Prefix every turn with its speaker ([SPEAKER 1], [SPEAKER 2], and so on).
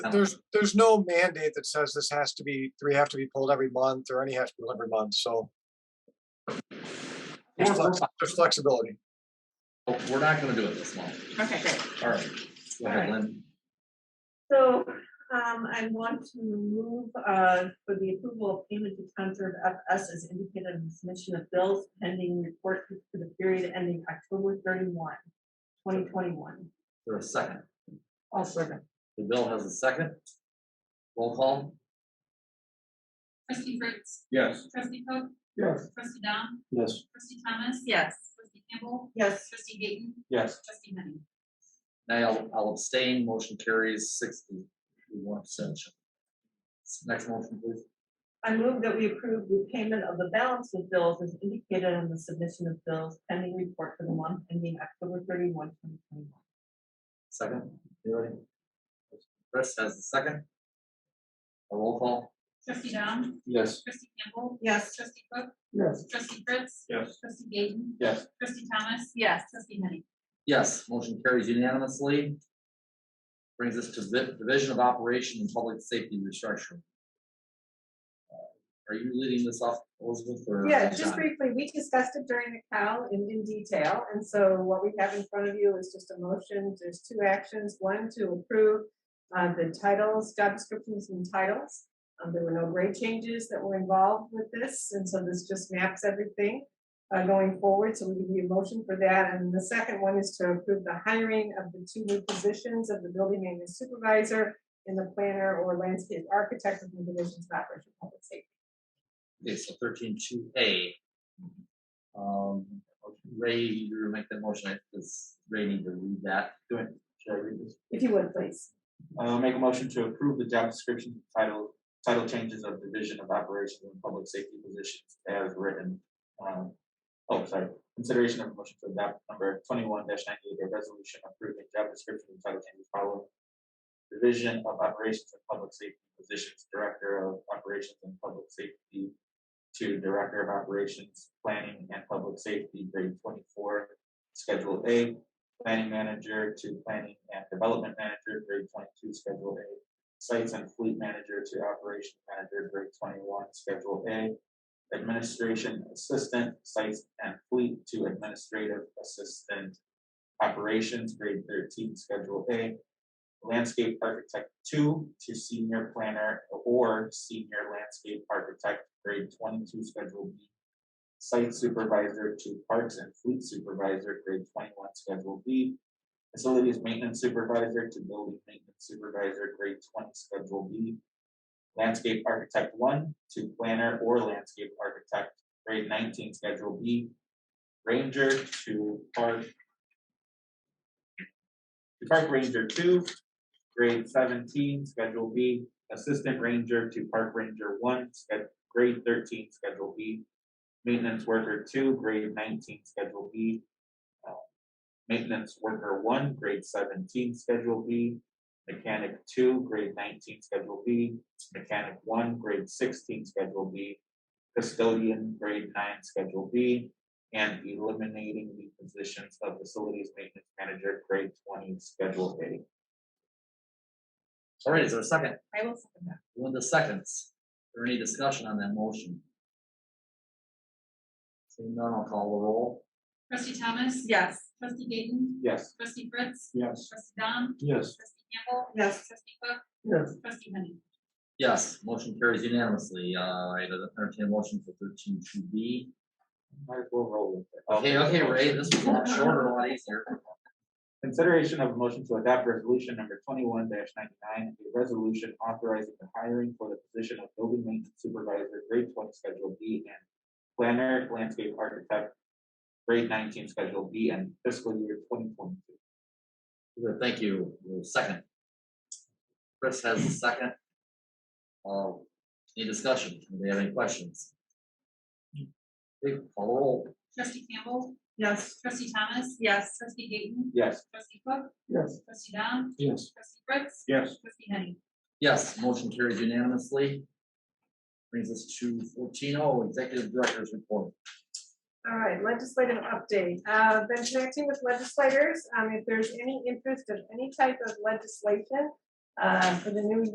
[SPEAKER 1] don't-
[SPEAKER 2] There's, there's no mandate that says this has to be, three have to be pulled every month or any has to be pulled every month, so. There's
[SPEAKER 1] Yeah, we're
[SPEAKER 2] flex- there's flexibility.
[SPEAKER 1] fine. We're not gonna do it this month.
[SPEAKER 3] Okay, great.
[SPEAKER 1] All right. Go ahead, Lynn.
[SPEAKER 4] So um, I want to move uh, for the approval of payment to town serve FS as indicated in the submission of bills pending report for the period ending October 31, 2021.
[SPEAKER 1] For a second.
[SPEAKER 4] All servant.
[SPEAKER 1] The bill has a second. Roll call.
[SPEAKER 5] Trustee Fritz,
[SPEAKER 6] Yes.
[SPEAKER 5] trustee Coe,
[SPEAKER 6] Yes.
[SPEAKER 5] trustee Dom,
[SPEAKER 6] Yes.
[SPEAKER 5] trustee Thomas.
[SPEAKER 3] Yes.
[SPEAKER 5] Trustee Campbell,
[SPEAKER 4] Yes,
[SPEAKER 5] trustee Gayton,
[SPEAKER 6] Yes.
[SPEAKER 5] trustee Henning.
[SPEAKER 1] Nay, I'll, I'll abstain. Motion carries six to one abstention. Next motion, please.
[SPEAKER 4] I move that we approve the payment of the balance of bills as indicated on the submission of bills pending report for the month ending October 31, 2021.
[SPEAKER 1] Second. You ready? Chris has the second. A roll call.
[SPEAKER 5] Trustee Dom,
[SPEAKER 6] Yes.
[SPEAKER 5] trustee Campbell,
[SPEAKER 4] Yes,
[SPEAKER 5] trustee Coe,
[SPEAKER 6] Yes.
[SPEAKER 5] trustee Fritz,
[SPEAKER 6] Yes.
[SPEAKER 5] trustee Gayton,
[SPEAKER 6] Yes.
[SPEAKER 5] trustee Thomas,
[SPEAKER 3] Yes.
[SPEAKER 5] trustee Henning.
[SPEAKER 1] Yes, motion carries unanimously. Brings us to the Division of Operation and Public Safety Restructuring. Are you leading this off, Elizabeth, or?
[SPEAKER 7] Yeah, just
[SPEAKER 1] John?
[SPEAKER 7] briefly, we discussed it during the cow in, in detail, and so what we have in front of you is just a motion, there's two actions, one to approve uh, the titles, job descriptions and titles. Um, there were no grade changes that were involved with this, and so this just maps everything uh, going forward, so we give you a motion for that, and the second one is to approve the hiring of the two new positions of the building maintenance supervisor and the planner or landscape architect of the divisions of operation public safety.
[SPEAKER 1] Okay, so thirteen two A. Um, Ray, you make that motion, I does Ray need to read that?
[SPEAKER 6] Do it. Should I read this?
[SPEAKER 7] If you would, please.
[SPEAKER 6] Uh, make a motion to approve the job description title, title changes of Division of Operations and Public Safety Positions as written. Um, oh, sorry, consideration of a motion to adopt number twenty-one ninety-eight, a resolution approving job description and title changes following. Division of Operations and Public Safety Positions, Director of Operations and Public Safety to Director of Operations, Planning and Public Safety, grade twenty-four, Schedule A, planning manager to planning and development manager, grade twenty-two, schedule A. Sites and fleet manager to operation manager, grade twenty-one, schedule A. Administration assistant, sites and fleet to administrative assistant. Operations, grade thirteen, schedule A. Landscape architect two to senior planner or senior landscape architect, grade twenty-two, schedule B site supervisor to parks and fleet supervisor, grade twenty-one, schedule B. Facilities maintenance supervisor to building maintenance supervisor, grade twenty, schedule B. Landscape architect one to planner or landscape architect, grade nineteen, schedule B. Ranger to park. To park ranger two, grade seventeen, schedule B. Assistant ranger to park ranger one, sched- grade thirteen, schedule B maintenance worker two, grade nineteen, schedule B. uh, Maintenance worker one, grade seventeen, schedule B. Mechanic two, grade nineteen, schedule B. Mechanic one, grade sixteen, schedule B. Custodian, grade nine, schedule B. And eliminating the positions of facilities maintenance manager, grade twenty, schedule A.
[SPEAKER 1] All right, is there a second?
[SPEAKER 7] I will second that.
[SPEAKER 1] Linda seconds. Is there any discussion on that motion? Seeing none, I'll call the roll.
[SPEAKER 5] Trustee Thomas.
[SPEAKER 3] Yes.
[SPEAKER 5] Trustee Gayton,
[SPEAKER 6] Yes.
[SPEAKER 5] trustee Fritz,
[SPEAKER 6] Yes.
[SPEAKER 5] trustee Dom,
[SPEAKER 6] Yes.
[SPEAKER 5] trustee Campbell,
[SPEAKER 4] yes,
[SPEAKER 5] trustee Coe,
[SPEAKER 6] Yes.
[SPEAKER 5] trustee Henning.
[SPEAKER 1] Yes, motion carries unanimously. Uh, I entertain a motion for thirteen two B.
[SPEAKER 6] Might as well roll with it.
[SPEAKER 1] Okay, okay, Ray, this was a lot shorter, a lot easier.
[SPEAKER 6] Consideration of a motion to adopt resolution number twenty-one ninety-nine, a resolution authorizing the hiring for the position of building maintenance supervisor, grade twenty, schedule B, and planner, landscape architect, grade nineteen, schedule B, and fiscal year twenty twenty-two.
[SPEAKER 1] Good, Thank you. Your Second. Chris has a second. Uh, any discussion? Anybody have any questions? Okay, call the roll.
[SPEAKER 5] Trustee Campbell,
[SPEAKER 4] yes.
[SPEAKER 5] trustee Thomas,
[SPEAKER 3] Yes.
[SPEAKER 5] trustee Gayton,
[SPEAKER 6] Yes.
[SPEAKER 5] trustee Coe,
[SPEAKER 6] Yes.
[SPEAKER 5] trustee Dom,
[SPEAKER 6] Yes.
[SPEAKER 5] trustee Fritz,
[SPEAKER 6] Yes.
[SPEAKER 5] trustee Henning.
[SPEAKER 1] Yes, motion carries unanimously. Brings us to fourteen oh, Executive Director's Report.
[SPEAKER 7] All right, legislative update. Uh, been connecting with legislators. Um, if there's any interest of any type of legislation, uh, for the new